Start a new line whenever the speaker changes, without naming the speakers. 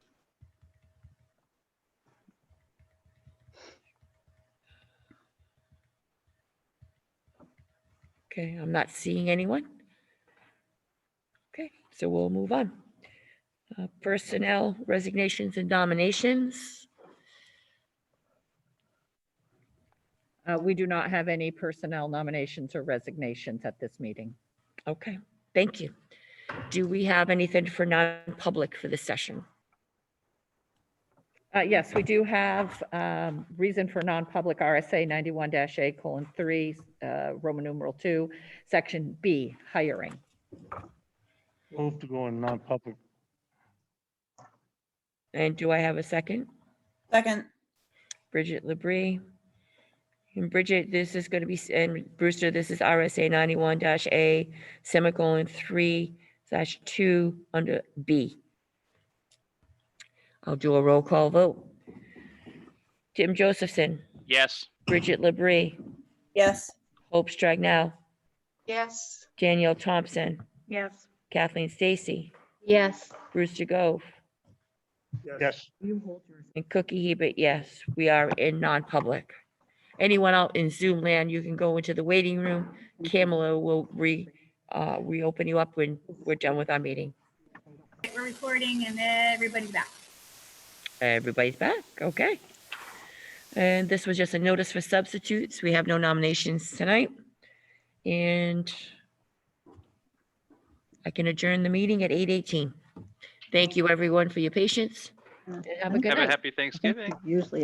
Okay, I'm not seeing anyone. Okay, so we'll move on. Uh, Personnel resignations and nominations.
Uh, We do not have any personnel nominations or resignations at this meeting.
Okay, thank you. Do we have anything for non-public for this session?
Uh, Yes, we do have um, reason for non-public RSA 91-A colon 3, uh, Roman numeral 2, section B, hiring.
Move to go in non-public.
And do I have a second?
Second,
Bridget Labrie. And Bridget, this is going to be, s- and Brewster, this is RSA ninety-one dash A, semicolon, three slash two, under B. I'll do a roll call vote. Jim Josephson,
Yes.
Bridget Labrie,
yes.
Hope Stragnow,
Yes.
Danielle Thompson,
Yes.
Kathleen Stacy,
Yes.
Brewster Gove,
Yes,
and Cookie Hebert, yes, we are in non-public. Anyone out in Zoom land, you can go into the waiting room. Camilla will re, uh, reopen you up when we're done with our meeting.
We're recording and everybody's back.
Everybody's back, okay? And this was just a notice for substitutes. We have no nominations tonight. And I can adjourn the meeting at eight eighteen. Thank you, everyone, for your patience. and Have a good
Have a
night.
happy Thanksgiving.